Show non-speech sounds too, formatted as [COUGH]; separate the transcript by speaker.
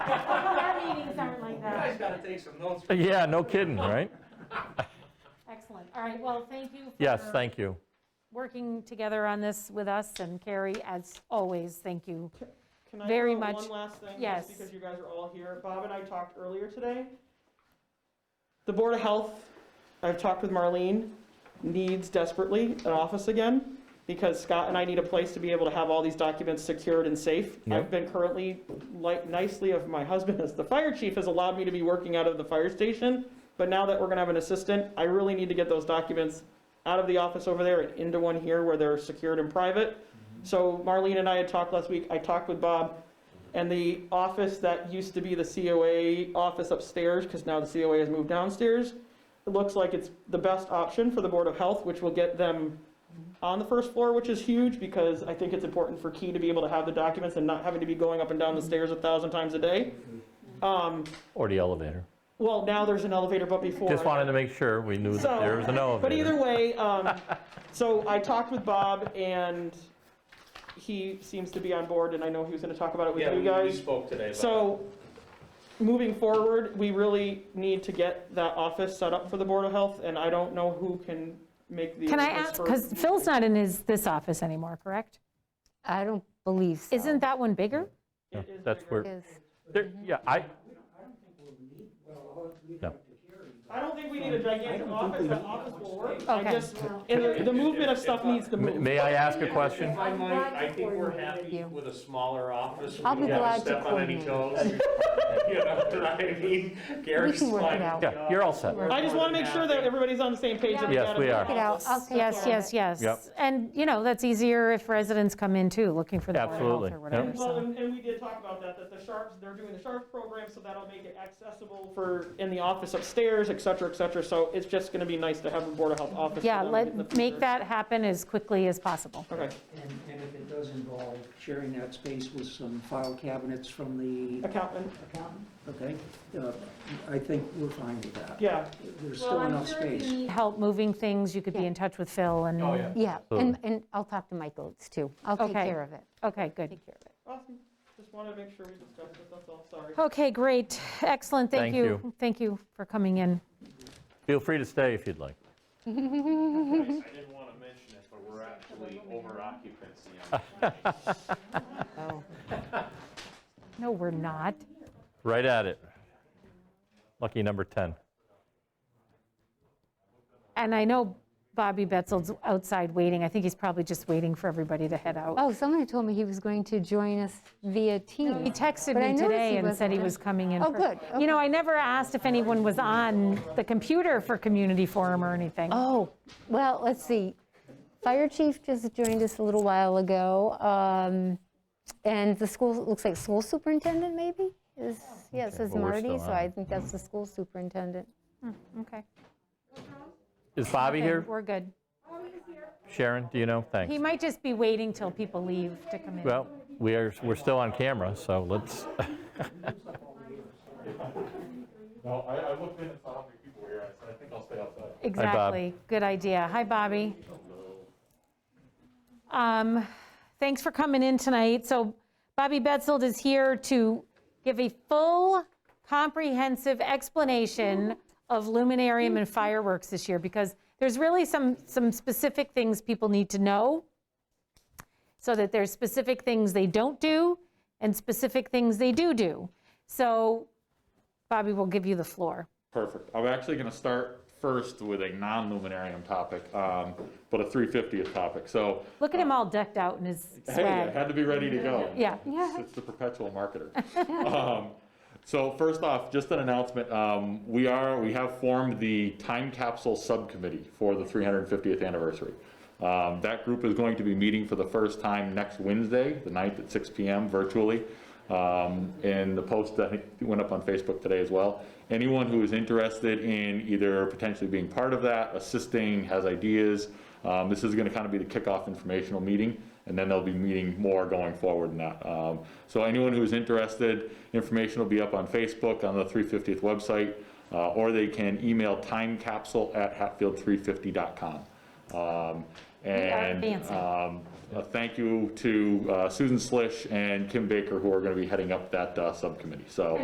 Speaker 1: gotta take some notes.
Speaker 2: Uh, Yeah, no kidding, right?
Speaker 3: Excellent. All right, well, thank you.
Speaker 2: Yes,
Speaker 3: for
Speaker 2: thank you.
Speaker 3: Working together on this with us, and Carrie, as always, thank you.
Speaker 4: Can I
Speaker 3: Very
Speaker 4: throw
Speaker 3: much-
Speaker 4: one last thing? just
Speaker 3: yes.
Speaker 4: Because you guys are all here. Bob and I talked earlier today. The Board of Health, I've talked with Marlene, needs desperately an office again because Scott and I need a place to be able to have all these documents secured and safe.
Speaker 2: Yep.
Speaker 4: I've been currently, like nicely of my husband as the fire chief, has allowed me to be working out of the fire station. But now that we're gonna have an assistant, I really need to get those documents out of the office over there and into one here where they're secured and private. So Marlene and I had talked last week, I talked with Bob, and the office that used to be the COA office upstairs, because now the COA has moved downstairs, it looks like it's the best option for the Board of Health, which will get them on the first floor, which is huge, because I think it's important for Key to be able to have the documents and not having to be going up and down the stairs a thousand times a day. Um,
Speaker 2: Or the elevator.
Speaker 4: well, now there's an elevator, but before.
Speaker 2: Just wanted to make sure we knew that there was an elevator.
Speaker 4: But either way, um, [LAUGHS] so I talked with Bob and he seems to be on board and I know he was gonna talk about it with
Speaker 1: Yeah,
Speaker 4: you
Speaker 1: we- we
Speaker 4: guys.
Speaker 1: spoke today about.
Speaker 4: So, moving forward, we really need to get that office set up for the Board of Health and I don't know who can make the.
Speaker 3: Can I
Speaker 4: arrangements
Speaker 3: ask,
Speaker 4: for-
Speaker 3: because Phil's not in his, this office anymore, correct?
Speaker 5: I don't believe so.
Speaker 3: Isn't that one bigger?
Speaker 4: It
Speaker 2: Yeah,
Speaker 4: is
Speaker 2: That's
Speaker 4: bigger.
Speaker 2: where,
Speaker 5: Is-
Speaker 2: there- yeah, I,
Speaker 4: I don't think we need a gigantic office, that office will work. I
Speaker 5: Okay.
Speaker 4: just, and the- the movement of stuff needs to
Speaker 2: m-
Speaker 4: move.
Speaker 2: may I ask a question?
Speaker 1: If I might, I think we're
Speaker 5: with
Speaker 1: happy
Speaker 5: you.
Speaker 1: with a smaller office. We
Speaker 5: I'll be
Speaker 1: don't have
Speaker 5: glad to
Speaker 1: Step on any toes. [LAUGHS] You know what I mean? Gary's
Speaker 5: can work it
Speaker 1: fine.
Speaker 5: out.
Speaker 2: Yeah, you're all set.
Speaker 4: I just wanna make sure that everybody's on the same page. that we
Speaker 2: Yes,
Speaker 4: gotta
Speaker 2: we
Speaker 4: move
Speaker 2: are.
Speaker 4: on
Speaker 5: Check it out.
Speaker 4: this.
Speaker 5: I'll take
Speaker 3: Yes,
Speaker 5: care of
Speaker 3: yes,
Speaker 5: it.
Speaker 3: yes.
Speaker 2: Yep.
Speaker 3: And, you know, that's easier if residents come in too, looking for the Board of Health
Speaker 2: Absolutely,
Speaker 3: or
Speaker 2: yep.
Speaker 3: whatever.
Speaker 4: Well,
Speaker 3: so.
Speaker 4: and, and we did talk about that, that the Sharps, they're doing the Sharps program, so that'll make it accessible for, in the office upstairs, et cetera, et cetera. So it's just gonna be nice to have a Board of Health office. for
Speaker 3: Yeah,
Speaker 4: them in the
Speaker 3: let, make
Speaker 4: future.
Speaker 3: that happen as quickly as possible.
Speaker 4: Okay,
Speaker 6: And, and if it does involve sharing that space with some file cabinets from the
Speaker 4: accountant,
Speaker 6: accountant, okay? uh, I think we're fine with that.
Speaker 4: yeah.
Speaker 6: There's still enough space.
Speaker 3: Help moving things, you could be
Speaker 5: Yeah.
Speaker 3: in touch with Phil and.
Speaker 1: Oh, yeah.
Speaker 5: Yeah,
Speaker 2: Hmm.
Speaker 5: and, and I'll talk to Mike Oates, too. I'll take
Speaker 3: Okay.
Speaker 5: care of it.
Speaker 3: Okay, good.
Speaker 5: Take care of it.
Speaker 4: Awesome, just wanted to make sure we discussed it, that's all, sorry.
Speaker 3: Okay, great. Excellent, thank
Speaker 2: Thank
Speaker 3: you.
Speaker 2: you.
Speaker 3: Thank you for coming in.
Speaker 2: Feel free to stay if you'd like.
Speaker 1: Nice. I didn't want to mention it, but we're actually over occupancy on
Speaker 3: No, we're not.
Speaker 2: Right at it. Lucky number 10.
Speaker 3: And I know Bobby Betzel's outside waiting. I think he's probably just waiting for everybody to head out.
Speaker 5: Oh, somebody told me he was going to join us via Teams.
Speaker 3: He texted
Speaker 5: But I
Speaker 3: me
Speaker 5: noticed
Speaker 3: today
Speaker 5: he
Speaker 3: and said he
Speaker 5: wasn't.
Speaker 3: was coming in.
Speaker 5: Oh,
Speaker 3: for-
Speaker 5: good.
Speaker 3: You know, I never asked if anyone was on the computer for community forum or anything.
Speaker 5: Oh, well, let's see. Fire chief just joined us a little while ago. um, And the school, looks like school superintendent maybe is, yes, is
Speaker 2: well, we're
Speaker 5: Marty,
Speaker 2: still
Speaker 5: so
Speaker 2: on.
Speaker 5: I think that's the school superintendent.
Speaker 3: Okay.
Speaker 2: Is Bobby
Speaker 3: Okay,
Speaker 2: here?
Speaker 3: We're good.
Speaker 2: Sharon, do you know? Thanks.
Speaker 3: He might just be waiting till people leave to come in.
Speaker 2: Well, we are, we're still on camera, so let's, [LAUGHS]
Speaker 7: No, I, I looked in and saw how many people were here, I said, I think I'll stay outside.
Speaker 3: Exactly. Good idea. Hi, Bobby. Um, Thanks for coming in tonight. So Bobby Betzold is here to give a full, comprehensive explanation of Luminarium and fireworks this year, because there's really some, some specific things people need to know, so that there's specific things they don't do and specific things they do do. So Bobby will give you the floor.
Speaker 7: Perfect. I'm actually going to start first with a non-luminarium topic, um, but a 350th topic. So,
Speaker 3: Look at him all decked out in his
Speaker 7: hey, I
Speaker 3: swag.
Speaker 7: had to be ready to go.
Speaker 3: Yeah.
Speaker 7: It's- It's the perpetual
Speaker 3: [LAUGHS]
Speaker 7: marketer. Um, So first off, just an announcement, um, we are, we have formed the Time Capsule Subcommittee for the 350th anniversary. Um, That group is going to be meeting for the first time next Wednesday, the 9th at 6 PM virtually. Um, And the post, I think, went up on Facebook today as well. Anyone who is interested in either potentially being part of that, assisting, has ideas, um, This is going to kind of be the kickoff informational meeting, and then they'll be meeting more going forward in that. Um, So anyone who's interested, information will be up on Facebook, on the 350th website, uh, or they can email timecapsule@hatfield350.com. Um, And
Speaker 3: fancy.
Speaker 7: um, a thank you to uh, Susan Slish and Kim Baker, who are going to be heading up that uh, subcommittee. So